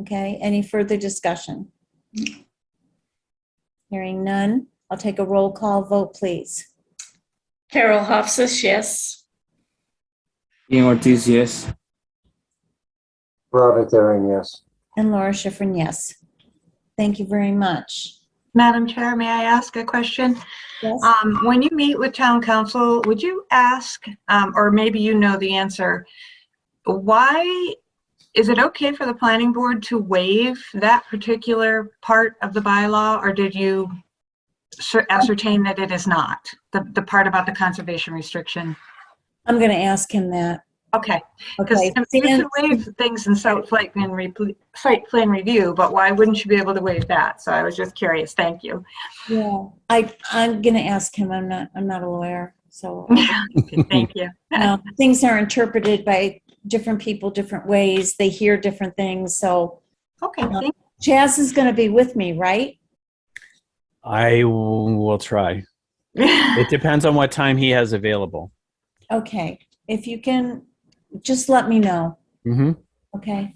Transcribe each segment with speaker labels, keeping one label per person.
Speaker 1: Okay, any further discussion? Hearing none, I'll take a roll call vote, please.
Speaker 2: Carol Hofstas, yes.
Speaker 3: Ian Ortiz, yes.
Speaker 4: Robert Herring, yes.
Speaker 1: And Laura Schifrin, yes. Thank you very much.
Speaker 5: Madam Chair, may I ask a question?
Speaker 1: Yes,
Speaker 5: Um, When you meet with town council, would you ask, um, or maybe you know the answer, why, is it okay for the planning board to waive that particular part of the bylaw? Or did you cer- ascertain that it is not, the the part about the conservation restriction?
Speaker 1: I'm going to ask him that.
Speaker 5: Okay, because
Speaker 1: Okay.
Speaker 5: you
Speaker 1: Seeing-
Speaker 5: can waive things in site plan re- site plan review, but why wouldn't you be able to waive that? So I was just curious, thank you.
Speaker 1: Yeah, I, I'm going to ask him. I'm not, I'm not a lawyer, so.
Speaker 5: Thank you.
Speaker 1: Now, things are interpreted by different people different ways. They hear different things. So
Speaker 5: Okay, thank
Speaker 1: Chaz is going to be with me, right?
Speaker 6: I w- will try. It depends on what time he has available.
Speaker 1: Okay. If you can, just let me know.
Speaker 6: Mm-hmm.
Speaker 1: Okay.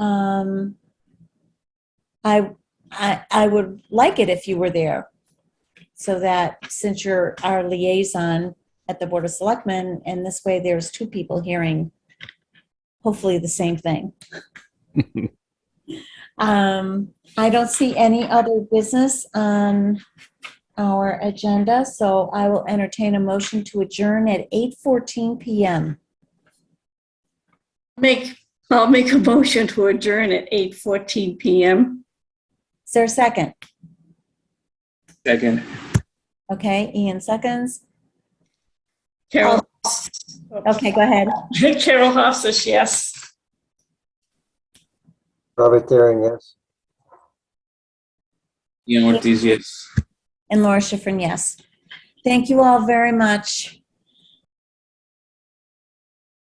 Speaker 1: Um, I, I, I would like it if you were there. So that since you're our liaison at the Board of Selectmen, and this way there's two people hearing hopefully the same thing. Um, I don't see any other business on our agenda, so I will entertain a motion to adjourn at 8:14 PM.
Speaker 2: Make, I'll make a motion to adjourn at 8:14 PM.
Speaker 1: Is there a second?
Speaker 3: Second.
Speaker 1: Okay, Ian seconds.
Speaker 2: Carol.
Speaker 1: Okay, go ahead.
Speaker 2: Carol Hofstas, yes.
Speaker 4: Robert Herring, yes.
Speaker 3: Ian Ortiz, yes.
Speaker 1: And Laura Schifrin, yes. Thank you all very much.